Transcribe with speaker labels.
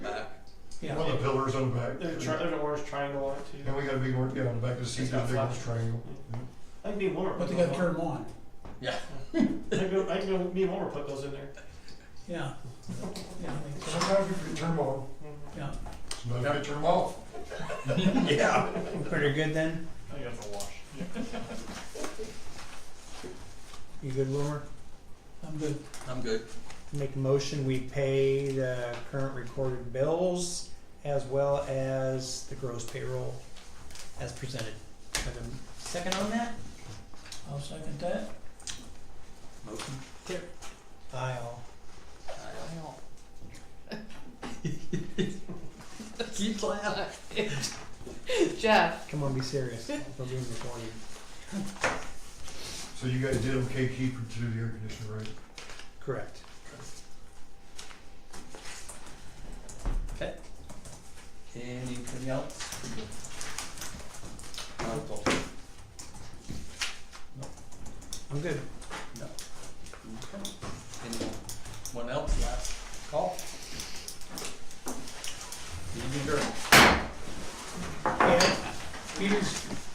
Speaker 1: Yeah.
Speaker 2: One of the pillars on the back.
Speaker 1: There's, a tri- there's an orange triangle on it too.
Speaker 2: And we got a big orange, yeah, on the back of the seat,
Speaker 1: It's
Speaker 2: got
Speaker 1: got
Speaker 2: a big
Speaker 1: flash.
Speaker 2: orange triangle.
Speaker 1: I think me and Wilmer.
Speaker 3: But they gotta
Speaker 1: put those
Speaker 3: turn them on.
Speaker 1: on. I think, I think me and Wilmer put those in there.
Speaker 3: Yeah. Yeah, I think so.
Speaker 2: Sometimes we forget to turn them on,
Speaker 1: Mhm.
Speaker 3: yeah.
Speaker 2: sometimes we forget to turn them off.
Speaker 4: Yeah. Pretty good then?
Speaker 1: I think that's a wash. Yeah.
Speaker 4: You good, Wilmer?
Speaker 3: I'm good.
Speaker 5: I'm good.
Speaker 4: Make a motion, we pay the current recorded bills as well as the gross payroll as presented. Have a second on that?
Speaker 3: I'll second that.
Speaker 5: Motion.
Speaker 4: I'll.
Speaker 5: Aye. Keep laughing.
Speaker 6: Jeff,
Speaker 4: Come on, be serious. We're being recorded.
Speaker 2: So you guys did okay keeping to the air conditioner, right?
Speaker 4: Correct.
Speaker 5: Anything else? Article.
Speaker 4: I'm good.
Speaker 5: No. Okay. Anyone else? Last call. Meeting adjourned.
Speaker 4: And Peter's